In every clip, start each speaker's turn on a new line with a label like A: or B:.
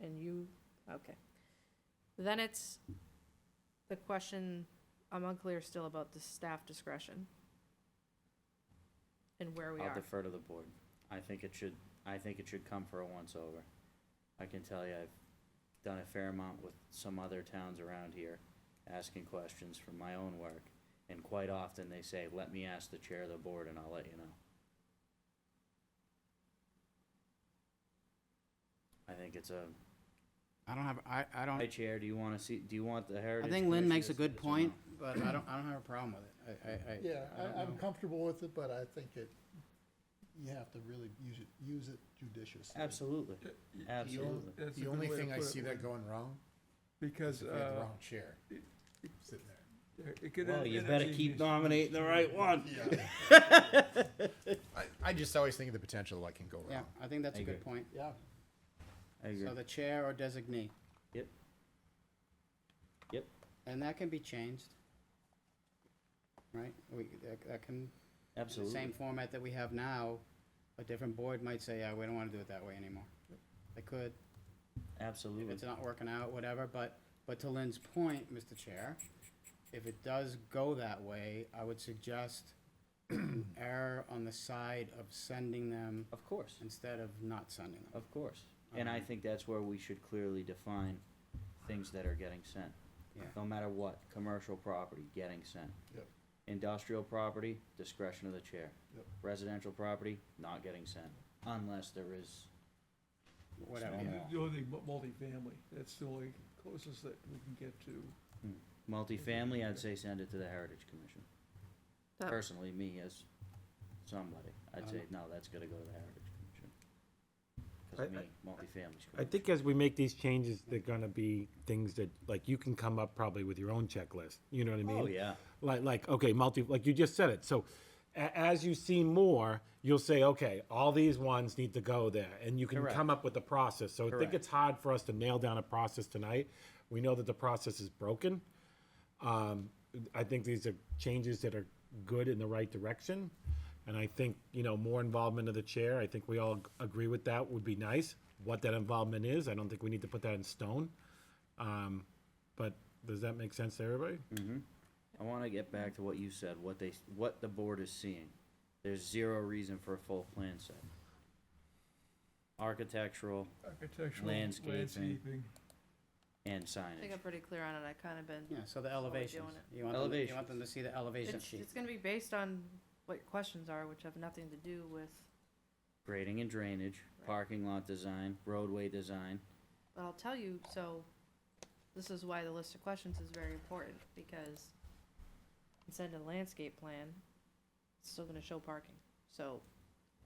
A: and you, okay. Then it's the question, I'm unclear still about the staff discretion. And where we
B: I'll
A: are.
B: defer to the board. I think it should, I think it should come for a once-over. I can tell you, I've done a fair amount with some other towns around here, asking questions from my own work. And quite often, they say, let me ask the chair of the board and I'll let you know. I think it's a,
C: I don't have, I, I
B: hi,
C: don't,
B: Chair, do you wanna see, do you want the
C: I
B: Heritage
C: think Lynn makes a
B: Commission
C: good
B: to see this or
C: point,
B: not?
C: but I don't, I don't have a problem with it. I, I, I.
D: Yeah,
C: I don't
D: I, I'm
C: know.
D: comfortable with it, but I think it, you have to really use it, use it judiciously.
B: Absolutely, absolutely.
E: That's a
F: The
E: good
F: only
E: way to
F: thing I
E: put it,
F: see
E: Lynn,
F: that going wrong is
E: Because,
F: if we had the
E: uh,
F: wrong chair
E: it-
F: sitting there.
E: it could.
B: Well,
E: end
B: you
E: up
B: better
E: being
B: keep
E: just-
B: nominating the right one.
F: I, I just always think of the potential that can go wrong.
C: Yeah, I think that's
B: I
C: a good
B: agree.
C: point.
D: Yeah,
B: I agree.
C: So the chair or designee,
B: Yep. Yep.
C: and that can be changed. Right, we, that, that can, the
B: Absolutely.
C: same format that we have now, a different board might say, yeah, we don't wanna do it that way anymore. They could, if
B: Absolutely.
C: it's not working out, whatever, but, but to Lynn's point, Mr. Chair, if it does go that way, I would suggest err on the side of sending them
B: Of course.
C: instead of not sending them.
B: Of course. And
C: Uh-huh.
B: I think that's where we should clearly define things that are getting sent.
C: Yeah.
B: No matter what, commercial property, getting sent.
D: Yep.
B: Industrial property, discretion of the chair.
D: Yep.
B: Residential property, not getting sent, unless there is,
C: Whatever,
B: Stone
C: yeah.
B: wall.
E: The only thing, mu- multifamily, that's the only closest that we can get to.
B: multifamily, I'd say send it to the Heritage Commission.
A: That-
B: Personally, me as somebody, I'd say,
C: Um,
B: no, that's gotta go to the Heritage Commission.
G: I-
B: Cause me, multifamily's.
G: I think as we make these changes, they're gonna be things that, like, you can come up probably with your own checklist, you know what I mean?
B: Oh, yeah.
G: Like, like, okay, multi, like you just said it, so a- as you see more, you'll say, okay, all these ones need to go there, and you can
B: Correct.
G: come up with the process, so I think
B: Correct.
G: it's hard for us to nail down a process tonight. We know that the process is broken. Um, I think these are changes that are good in the right direction, and I think, you know, more involvement of the chair, I think we all ag- agree with that would be nice. What that involvement is, I don't think we need to put that in stone. Um, but does that make sense to everybody?
C: Mm-hmm.
B: I want to get back to what you said, what they, what the board is seeing. There's zero reason for a full plan set. Architectural
E: Architectural,
B: Landscaping.
E: landscaping.
B: and
A: I think
B: signage.
A: I'm pretty clear on it. I kind of been,
C: Yeah, so the
A: how we're doing
C: elevations.
A: it.
C: You want them, you
B: Elevations.
C: want them to see the elevation
A: it's,
C: sheet.
A: it's gonna be based on what your questions are, which have nothing to do with
B: Grading and drainage, parking lot design, roadway design.
A: But I'll tell you, so, this is why the list of questions is very important, because instead of landscape plan, it's still gonna show parking. So,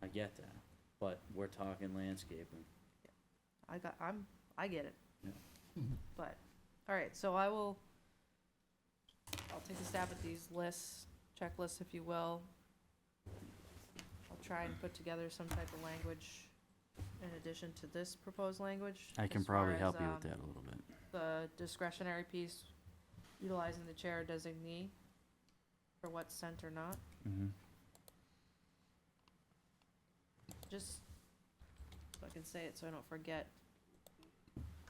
B: I get that, but we're talking landscaping.
A: I got, I'm, I get it.
B: Yeah.
A: But, alright, so I will, I'll take a stab at these lists, checklists if you will. I'll try and put together some type of language in addition to this proposed language. as far as, um,
B: that a little bit.
A: the discretionary piece, utilizing the chair designee for what's sent or not,
B: Mm-hmm.
A: just so I can say it so I don't forget.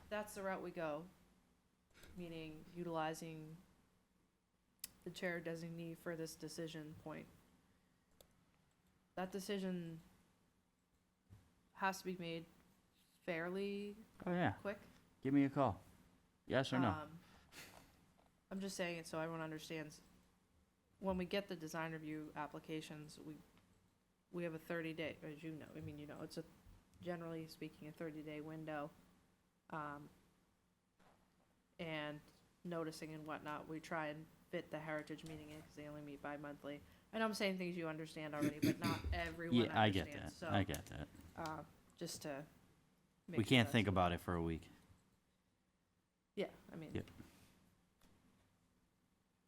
A: That's the route we go, meaning utilizing the chair designee for this decision point. That decision has to be made fairly
B: Oh, yeah,
A: quick.
B: give me a call. Yes
A: Um, I'm just saying it so everyone understands. When we get the design review applications, we, we have a thirty day, as you know, I mean, you know, it's a, generally speaking, a thirty day window. Um, and noticing and whatnot, we try and fit the heritage meeting in, cause they only meet bi-monthly. I know I'm saying things you understand already, but not everyone understands, so,
B: get that.
A: uh, just to. make sure that's-
B: about it for a week.
A: Yeah, I mean.
B: Yep.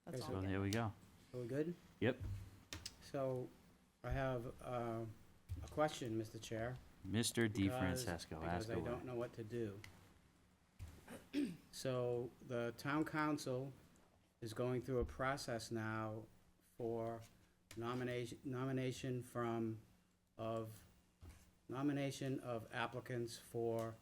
A: That's all.
C: So
A: I'm getting.
B: we go.
C: Are we good?
B: Yep.
C: So I have um, a question, Mr. Chair.
B: Mr.
C: because- Because I don't know what to do. So the town council is going through a process now for nomination, nomination from, of, nomination of applicants for